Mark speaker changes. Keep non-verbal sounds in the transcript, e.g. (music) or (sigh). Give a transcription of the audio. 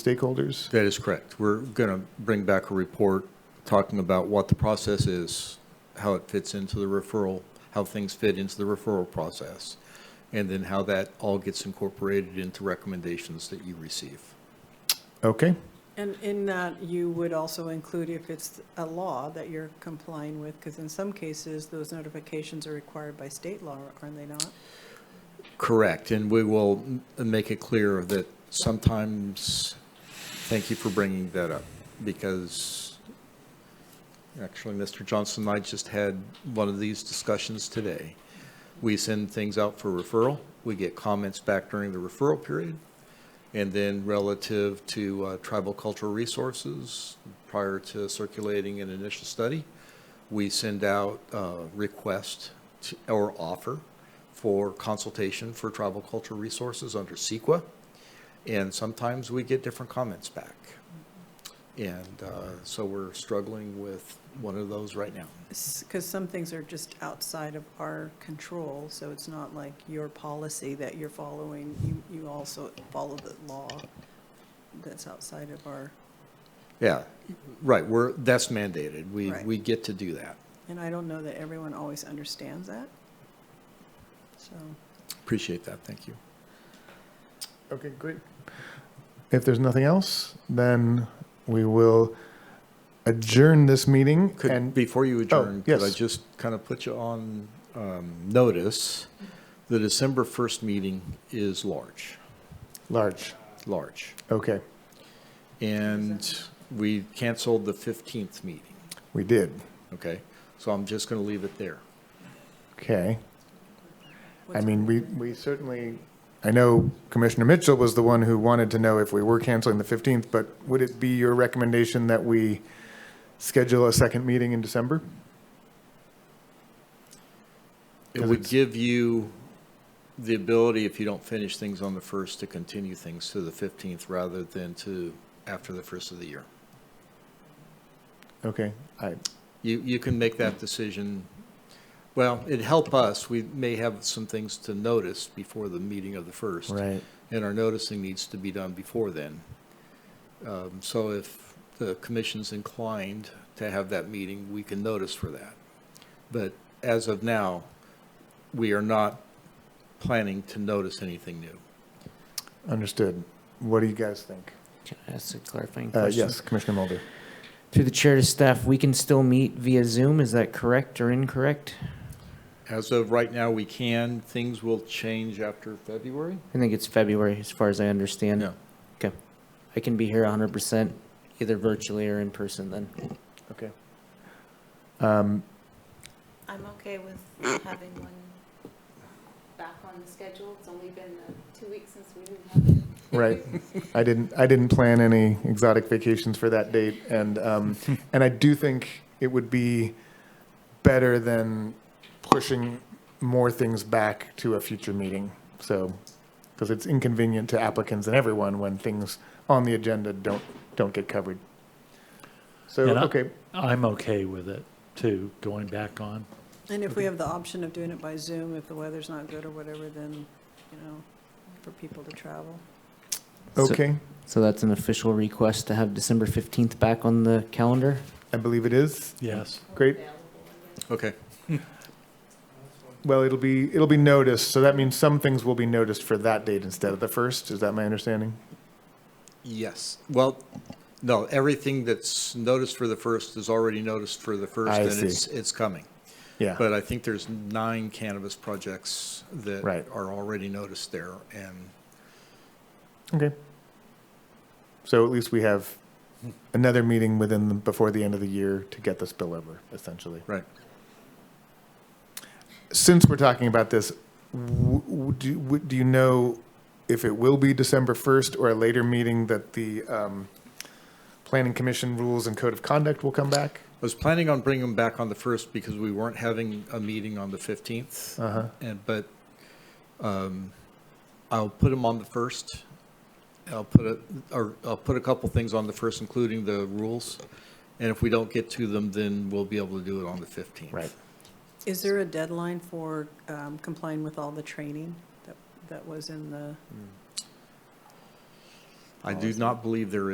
Speaker 1: stakeholders?
Speaker 2: That is correct. We're going to bring back a report talking about what the process is, how it fits into the referral, how things fit into the referral process, and then how that all gets incorporated into recommendations that you receive.
Speaker 1: Okay,
Speaker 3: And in that, you would also include if it's a law that you're complying with, because in some cases, those notifications are required by state law, aren't they not?
Speaker 2: Correct, and we will m- make it clear that sometimes, thank you for bringing that up, because actually, Mr. Johnson and I just had one of these discussions today. We send things out for referral, we get comments back during the referral period, and then relative to uh, tribal cultural resources, prior to circulating an initial study, we send out a request to- or offer for consultation for tribal cultural resources under CEQA. And sometimes we get different comments back. And uh, so we're struggling with one of those right now.
Speaker 3: Because some things are just outside of our control, so it's not like your policy that you're following. You, you also follow the law that's outside of our,
Speaker 2: Yeah, right, we're, that's mandated. We,
Speaker 3: Right.
Speaker 2: we get to do that.
Speaker 3: and I don't know that everyone always understands that. So,
Speaker 2: Appreciate that, thank you.
Speaker 1: okay, great. If there's nothing else, then we will adjourn this meeting
Speaker 2: Could,
Speaker 1: and,
Speaker 2: before you adjourn, could I
Speaker 1: yes.
Speaker 2: just kind of put you on um, notice? The December 1st meeting is large,
Speaker 1: large,
Speaker 2: large.
Speaker 1: okay,
Speaker 2: And we canceled the 15th meeting,
Speaker 1: we did,
Speaker 2: okay? So I'm just going to leave it there.
Speaker 1: okay. I
Speaker 3: what's-
Speaker 1: mean, we, we certainly, I know Commissioner Mitchell was the one who wanted to know if we were canceling the 15th, but would it be your recommendation that we schedule a second meeting in December?
Speaker 2: It
Speaker 1: 'Cause
Speaker 2: would
Speaker 1: it's-
Speaker 2: give you the ability, if you don't finish things on the 1st, to continue things to the 15th rather than to after the 1st of the year.
Speaker 1: Okay, I,
Speaker 2: You, you can make that decision. Well, it'd help us. We may have some things to notice before the meeting of the 1st.
Speaker 1: right,
Speaker 2: and our noticing needs to be done before then. Um, So if the commission's inclined to have that meeting, we can notice for that. But as of now, we are not planning to notice anything new.
Speaker 1: understood. What do you guys think?
Speaker 4: Can I ask a clarifying
Speaker 1: Uh,
Speaker 4: question?
Speaker 1: yes, Commissioner Mulder.
Speaker 4: Through the chair to staff, we can still meet via Zoom, is that correct or incorrect?
Speaker 2: As of right now, we can. Things will change after February?
Speaker 4: I think it's February, as far as I understand.
Speaker 2: No.
Speaker 4: Okay. I can be here hundred percent, either virtually or in person then.
Speaker 1: Okay.
Speaker 5: I'm okay with having one back on the schedule. It's only been uh, two weeks since we didn't have it.
Speaker 1: Right. I didn't, I didn't plan any exotic vacations for that date. And,
Speaker 6: (laughs)
Speaker 1: um, and I do think it would be better than pushing more things back to a future meeting. So, because it's inconvenient to applicants and everyone when things on the agenda don't, don't get covered. So,
Speaker 6: And I-
Speaker 1: okay,
Speaker 6: I'm okay with it, too, going back on.
Speaker 3: and if we have the option of doing it by Zoom, if the weather's not good or whatever, then, you know, for people to travel.
Speaker 4: So-
Speaker 1: okay,
Speaker 4: So that's an official request to have December fifteenth back on the calendar?
Speaker 1: I believe it is.
Speaker 6: Yes,
Speaker 1: Great.
Speaker 2: Okay.
Speaker 1: Well, it'll be, it'll be noticed. So that means some things will be noticed for that date instead of the first. Is that my understanding?
Speaker 2: Yes. Well, no, everything that's noticed for the 1st is already noticed for the 1st.
Speaker 1: I
Speaker 2: and
Speaker 1: see.
Speaker 2: it's It's coming.
Speaker 1: Yeah.
Speaker 2: But I think there's nine cannabis projects that
Speaker 1: Right.
Speaker 2: are already noticed there, and
Speaker 1: Okay. So at least we have another meeting within, the- before the end of the year to get the spillover, essentially.
Speaker 2: Right.
Speaker 1: Since we're talking about this, w- w- do w- do you know if it will be December 1st or a later meeting that the um, Planning Commission rules and code of conduct will come back?
Speaker 2: I was planning on bringing them back on the 1st because we weren't having a meeting on the 15th,
Speaker 1: Uh-huh.
Speaker 2: and, but um, I'll put them on the 1st. I'll put a, or I'll put a couple things on the 1st, including the rules, and if we don't get to them, then we'll be able to do it on the 15th.
Speaker 1: Right.
Speaker 3: Is there a deadline for um, complying with all the training that, that was in the,
Speaker 2: I do not believe there